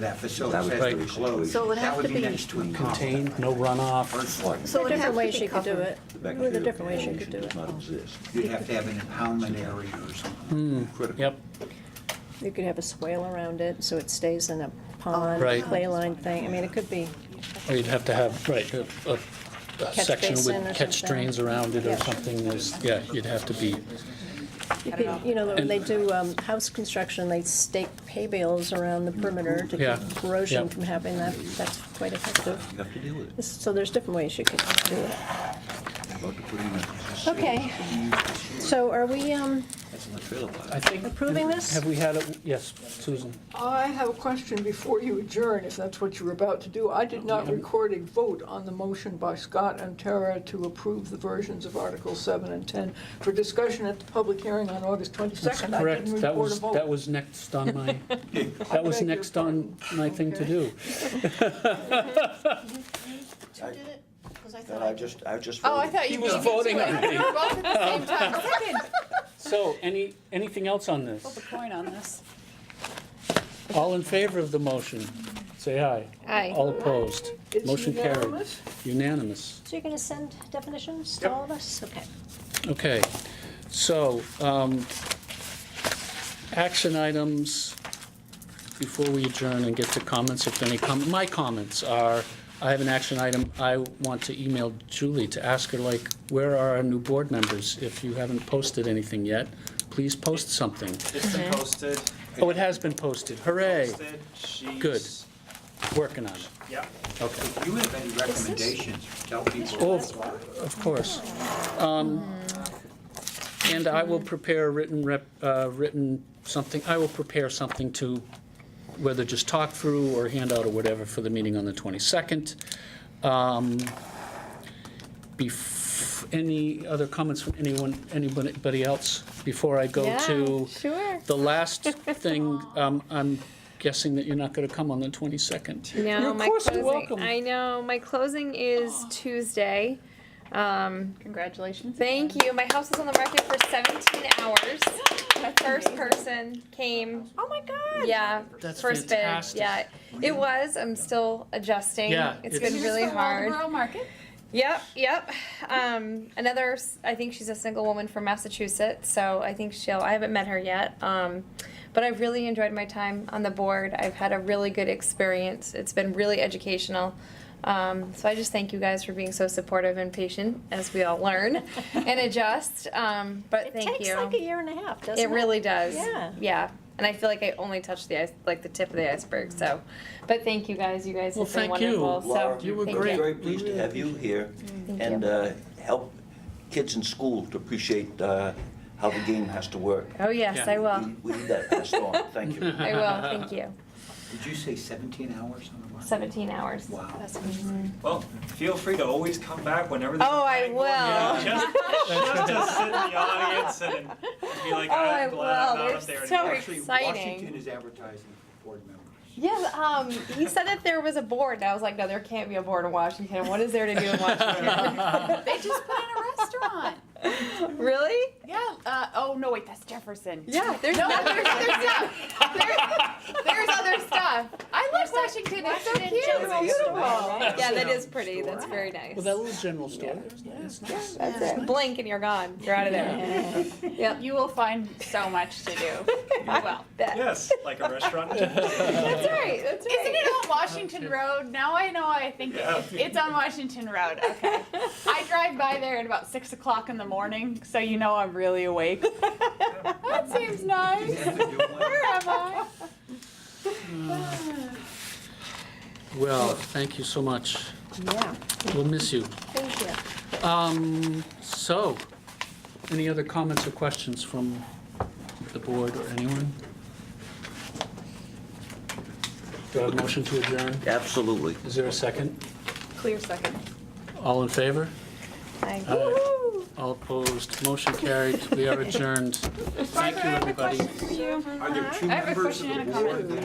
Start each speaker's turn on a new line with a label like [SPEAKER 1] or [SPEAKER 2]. [SPEAKER 1] That
[SPEAKER 2] That
[SPEAKER 1] facility
[SPEAKER 2] would
[SPEAKER 1] says to
[SPEAKER 2] be-
[SPEAKER 1] be closed.
[SPEAKER 3] So it would
[SPEAKER 1] That
[SPEAKER 3] have
[SPEAKER 1] would
[SPEAKER 3] to
[SPEAKER 1] be
[SPEAKER 3] be
[SPEAKER 1] next to a
[SPEAKER 2] Contained, no
[SPEAKER 1] First
[SPEAKER 2] runoff.
[SPEAKER 1] one,
[SPEAKER 3] So it
[SPEAKER 4] There are
[SPEAKER 3] have
[SPEAKER 4] different
[SPEAKER 3] to
[SPEAKER 4] ways
[SPEAKER 3] be
[SPEAKER 4] you could do
[SPEAKER 3] covered.
[SPEAKER 4] it. There are different ways you could do it.
[SPEAKER 2] Does not exist.
[SPEAKER 1] you'd have to have an impoundment area or something. Critical.
[SPEAKER 2] Yep,
[SPEAKER 4] You could have a swale around it, so it stays in a pond,
[SPEAKER 2] Right.
[SPEAKER 4] clay line thing. I mean, it could be,
[SPEAKER 2] or you'd have to have, right, a, a- a
[SPEAKER 4] Catch
[SPEAKER 2] section
[SPEAKER 4] basin
[SPEAKER 2] with
[SPEAKER 4] or
[SPEAKER 2] catch
[SPEAKER 4] something.
[SPEAKER 2] drains around it or
[SPEAKER 4] Yeah.
[SPEAKER 2] something, there's, yeah, you'd have to be,
[SPEAKER 4] you could, you know, when they do um, house construction, they stake hay bales around the perimeter to
[SPEAKER 2] Yeah.
[SPEAKER 4] keep corrosion
[SPEAKER 2] Yep.
[SPEAKER 4] from happening. That, that's quite effective.
[SPEAKER 1] You have to deal with it.
[SPEAKER 4] So there's different ways you could do it.
[SPEAKER 1] About to put in a-
[SPEAKER 4] Okay. So are we um,
[SPEAKER 1] That's in the trailer park.
[SPEAKER 2] I think.
[SPEAKER 4] Approving this?
[SPEAKER 2] Have we had, a yes, Susan?
[SPEAKER 5] I have a question before you adjourn, if that's what you were about to do. I did not record a vote on the motion by Scott and Tara to approve the versions of Article 7 and 10 for discussion at the public hearing on August 22nd. I
[SPEAKER 2] Correct,
[SPEAKER 5] didn't
[SPEAKER 2] that
[SPEAKER 5] record a
[SPEAKER 2] was, that
[SPEAKER 5] vote.
[SPEAKER 2] was next on my, that was
[SPEAKER 5] beg your
[SPEAKER 2] next on my thing to
[SPEAKER 5] Okay.
[SPEAKER 2] do.
[SPEAKER 6] Who did it? Because I
[SPEAKER 1] That
[SPEAKER 6] thought.
[SPEAKER 1] I just, I just.
[SPEAKER 6] Oh, I
[SPEAKER 1] voted.
[SPEAKER 6] thought
[SPEAKER 2] He
[SPEAKER 6] you
[SPEAKER 2] was
[SPEAKER 6] did.
[SPEAKER 2] voting
[SPEAKER 6] You
[SPEAKER 2] on me.
[SPEAKER 6] were both at the same time.
[SPEAKER 2] So, any, anything else on this?
[SPEAKER 6] Flip a coin on this.
[SPEAKER 2] All in favor of the motion, say aye.
[SPEAKER 4] Aye.
[SPEAKER 2] All opposed,
[SPEAKER 5] It's
[SPEAKER 2] motion carried.
[SPEAKER 5] unanimous.
[SPEAKER 2] Unanimous.
[SPEAKER 4] so you're going to send definitions to all of us? Okay.
[SPEAKER 2] Okay, so, um, action items, before we adjourn and get to comments, if any com, my comments are, I have an action item, I want to email Julie to ask her, like, where are our new board members? If you haven't posted anything yet, please post something.
[SPEAKER 7] It's been posted.
[SPEAKER 2] Oh, it has been posted, hooray,
[SPEAKER 7] Posted. She's-
[SPEAKER 2] Good. working on it,
[SPEAKER 7] Yep.
[SPEAKER 2] okay.
[SPEAKER 1] If you have any recommendations, tell
[SPEAKER 2] Oh,
[SPEAKER 1] people.
[SPEAKER 2] of course. Um, And I will prepare a written rep, uh, written something, I will prepare something to, whether just talk through or hand out or whatever for the meeting on the 22nd. Um, bef- Any other comments from anyone, anybody else before I go to?
[SPEAKER 4] sure.
[SPEAKER 2] The last thing, um, I'm guessing that you're not going to come on the 22nd.
[SPEAKER 8] No,
[SPEAKER 2] You're-
[SPEAKER 8] my
[SPEAKER 2] Of course
[SPEAKER 8] closing.
[SPEAKER 2] you're welcome.
[SPEAKER 8] I know my closing is Tuesday. Um,
[SPEAKER 6] Congratulations.
[SPEAKER 8] thank you. My house was on the market for 17 hours. The first person came.
[SPEAKER 6] Oh my God.
[SPEAKER 8] Yeah,
[SPEAKER 2] That's
[SPEAKER 8] first
[SPEAKER 2] fantastic.
[SPEAKER 8] bid. Yeah, it was. I'm still adjusting.
[SPEAKER 2] Yeah,
[SPEAKER 8] it's,
[SPEAKER 2] it's-
[SPEAKER 8] been really hard.
[SPEAKER 6] Market.
[SPEAKER 8] Yep, yep. Um, another, s- I think she's a single woman from Massachusetts, so I think she'll, I haven't met her yet. Um, but I've really enjoyed my time on the board. I've had a really good experience. It's been really educational. Um, so I just thank you guys for being so supportive and patient as we all learn and adjust. Um, but
[SPEAKER 4] It
[SPEAKER 8] thank
[SPEAKER 4] takes
[SPEAKER 8] you.
[SPEAKER 4] like a year and a half, doesn't it?
[SPEAKER 8] it really does.
[SPEAKER 4] Yeah.
[SPEAKER 8] Yeah. And I feel like I only touched the ice, like the tip of the iceberg. So, but thank you guys. You guys
[SPEAKER 2] Well,
[SPEAKER 8] have been
[SPEAKER 2] thank you.
[SPEAKER 8] wonderful.
[SPEAKER 2] Laura,
[SPEAKER 8] so
[SPEAKER 2] you were
[SPEAKER 8] thank
[SPEAKER 2] great.
[SPEAKER 8] You.
[SPEAKER 2] Great. Very
[SPEAKER 1] Very pleased to have you here
[SPEAKER 8] Thank
[SPEAKER 1] and
[SPEAKER 8] you.
[SPEAKER 1] uh, help kids in school to appreciate uh, how the game has to work.
[SPEAKER 8] Oh yes,
[SPEAKER 2] Yeah.
[SPEAKER 8] I will.
[SPEAKER 1] We- We need that passed on, thank you.
[SPEAKER 8] I will. Thank you.
[SPEAKER 1] Did you say 17 hours on the market?
[SPEAKER 8] 17 hours.
[SPEAKER 1] Wow.
[SPEAKER 7] Well, feel free to always come back whenever. there's a
[SPEAKER 8] Oh, I
[SPEAKER 7] planning board meeting.
[SPEAKER 8] will.
[SPEAKER 7] Just, just sit in the audience and be like,
[SPEAKER 8] Oh, I
[SPEAKER 7] I'm glad I'm
[SPEAKER 8] will.
[SPEAKER 7] not
[SPEAKER 8] They're
[SPEAKER 7] up there
[SPEAKER 8] so
[SPEAKER 7] anymore.
[SPEAKER 1] Actually,
[SPEAKER 8] exciting.
[SPEAKER 1] Washington is advertising for board members.
[SPEAKER 8] Yes, um, he said that there was a board, and I was like, no, there can't be a board in Washington. What is there to do in Washington?
[SPEAKER 6] They just put in a restaurant.
[SPEAKER 8] really?
[SPEAKER 6] Yeah. Uh, oh no, wait, that's Jefferson.
[SPEAKER 8] Yeah, there's
[SPEAKER 6] No,
[SPEAKER 8] no, there's other stuff. There's, there's other stuff.
[SPEAKER 6] I love Washington. It's so cute.
[SPEAKER 8] It's beautiful. Yeah, that
[SPEAKER 7] General
[SPEAKER 8] is pretty. That's very nice.
[SPEAKER 2] Well, that little general store, it's nice.
[SPEAKER 8] That's it. Blink and you're gone. You're out of there. Yep.
[SPEAKER 6] You will find so much to do. Well.
[SPEAKER 8] That-
[SPEAKER 7] Yes, like a restaurant.
[SPEAKER 8] That's right. That's right.
[SPEAKER 6] Isn't it on Washington Road? Now I know. I think
[SPEAKER 7] Yeah.
[SPEAKER 6] it's, it's on Washington Road. Okay. I drive by there at about six o'clock in the morning, so you know I'm really awake. that seems nice.
[SPEAKER 1] Is that the new one?
[SPEAKER 6] Where am I?
[SPEAKER 2] Well, thank you so much.
[SPEAKER 4] Yeah.
[SPEAKER 2] We'll miss you.
[SPEAKER 4] Thank you.
[SPEAKER 2] Um, so, any other comments or questions from the board or anyone? Do I have a motion to adjourn?
[SPEAKER 1] Absolutely.
[SPEAKER 2] Is there a second?
[SPEAKER 6] Clear second.
[SPEAKER 2] All in favor?
[SPEAKER 8] Aye.
[SPEAKER 2] Uh, Aye. All opposed? Motion carried. We are adjourned. Thank you, everybody.
[SPEAKER 1] Are there two
[SPEAKER 6] I have a
[SPEAKER 1] members of
[SPEAKER 6] question and
[SPEAKER 1] the
[SPEAKER 6] a comment.
[SPEAKER 1] board that